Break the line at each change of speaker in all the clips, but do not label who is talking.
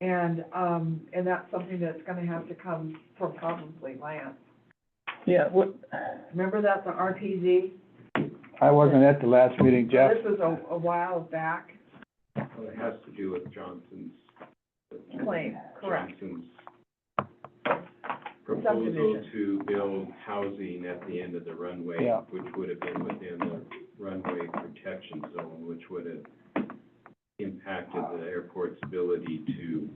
And, um, and that's something that's gonna have to come from probably Lance.
Yeah, what,
Remember that's an RPZ?
I wasn't at the last meeting, Jeff.
This was a, a while back
Well, it has to do with Johnson's.
claim, correct?
Johnson's proposal
Subdivision.
to build housing at the end of the runway.
Yeah.
Which would have been within the runway protection zone, which would have impacted the airport's ability to,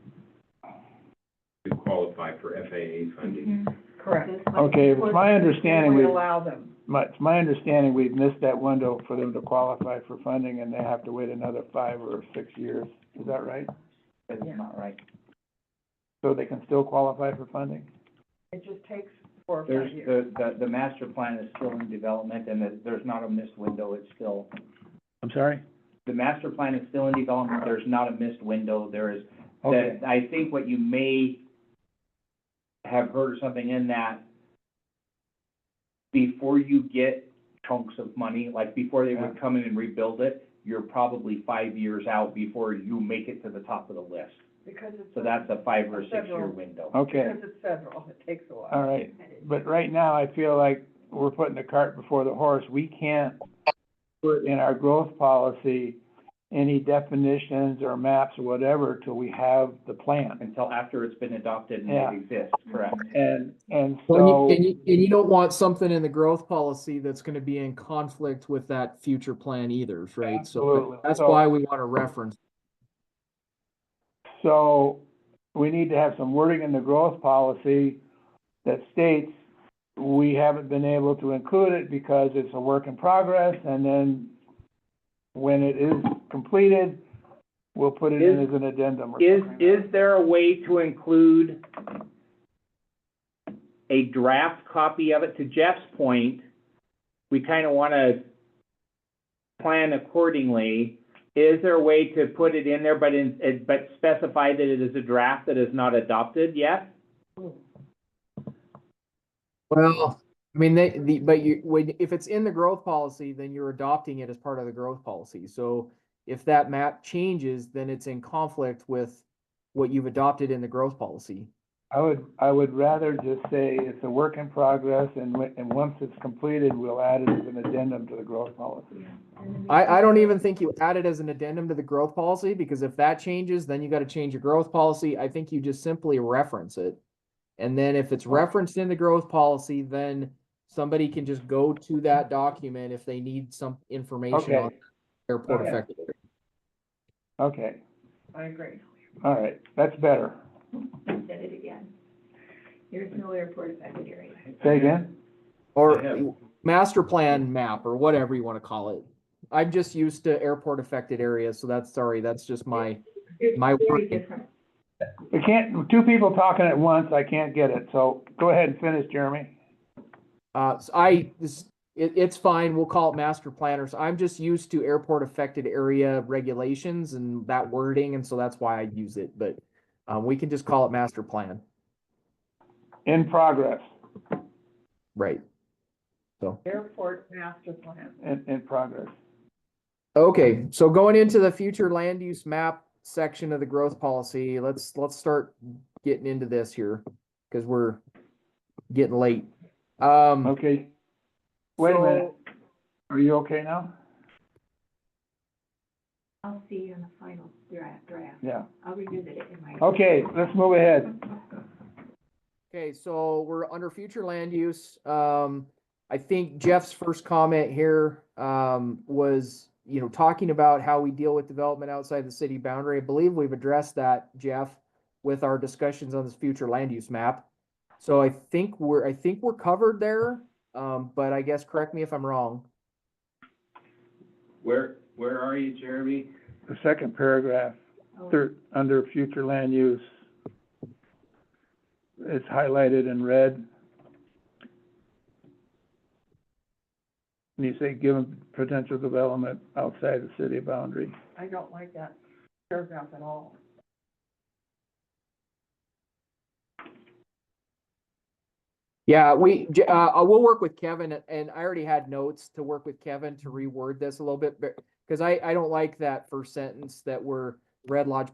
to qualify for FAA funding.
Correct.
Okay, it's my understanding
We
we,
allow them,
my, it's my understanding we've missed that window for them to qualify for funding and they have to wait another five or six years. Is that right?
yeah.
So they can still qualify for funding?
It just takes four or
There's,
five years.
the, the, the master plan is still in development, and that there's not a missed window, it's still,
I'm sorry?
the master plan is still in development, there's not a missed window, there is,
Okay,
that, I think what you may have heard or something in that, before you get chunks of money, like before they would come in and rebuild it, you're probably five years out before you make it to the top of the list.
Because it's.
So that's a five or six-year
Several.
window.
okay,
Because it's federal, it takes a
all
while.
right. But right now, I feel like we're putting the cart before the horse. We can't put in our growth policy any definitions or maps or whatever till we have the plan.
Until after it's been adopted and
Yeah.
it exists, correct?
And, and
Well,
so,
And you, and you, and you don't want something in the growth policy that's gonna be in conflict with that future plan either, right?
Absolutely.
So that's
So-
why we want to reference.
so we need to have some wording in the growth policy that states we haven't been able to include it because it's a work in progress, and then when it is completed, we'll put it in as an addendum or
Is,
something.
is there a way to include a draft copy of it? To Jeff's point, we kind of want to plan accordingly. Is there a way to put it in there, but in, it- but specify that it is a draft that is not adopted yet?
Well, I mean, they, the, but you, when, if it's in the growth policy, then you're adopting it as part of the growth policy. So if that map changes, then it's in conflict with what you've adopted in the growth policy.
I would, I would rather just say it's a work in progress, and, when- and once it's completed, we'll add it as an addendum to the growth policy.
I, I don't even think you add it as an addendum to the growth policy, because if that changes, then you gotta change your growth policy. I think you just simply reference it. And then if it's referenced in the growth policy, then somebody can just go to that document if they need some information on
Okay.
airport
Okay.
effective.
Okay,
I agree.
all right, that's better.
Said it again. There's no airport affected area.
Say again?
Yeah.
Or master plan map or whatever you wanna call it. I'm just used to airport affected areas, so that's, sorry, that's just my,
It's
My
Very
word.
different.
We can't, two people talking at once, I can't get it, so go ahead and finish, Jeremy.
Uh, s- I, this, it, it's fine, we'll call it master planners, I'm just used to airport affected area regulations and that wording, and so that's why I use it, but. Um, we can just call it master plan,
In progress,
right?
Airport master plan.
in, in progress.
Okay, so going into the future land use map section of the growth policy, let's, let's start getting into this here, cause we're getting late. Um,
Okay, wait a minute,
so-
are you okay now?
I'll see you on the final draft, draft.
Yeah,
I'll revisit it in my.
okay, let's move ahead.
Okay, so we're under future land use. Um, I think Jeff's first comment here, um, was, you know, talking about how we deal with development outside the city boundary. I believe we've addressed that, Jeff, with our discussions on this future land use map. So I think we're, I think we're covered there, um, but I guess, correct me if I'm wrong.
Where, where are you, Jeremy?
The second paragraph,
Oh,
third, under future land use. It's highlighted in red. And you say given potential development outside the city boundary.
I don't like that paragraph at all.
Yeah, we, J- uh, I will work with Kevin and I already had notes to work with Kevin to reword this a little bit, but, cause I, I don't like that first sentence that we're Red Lodge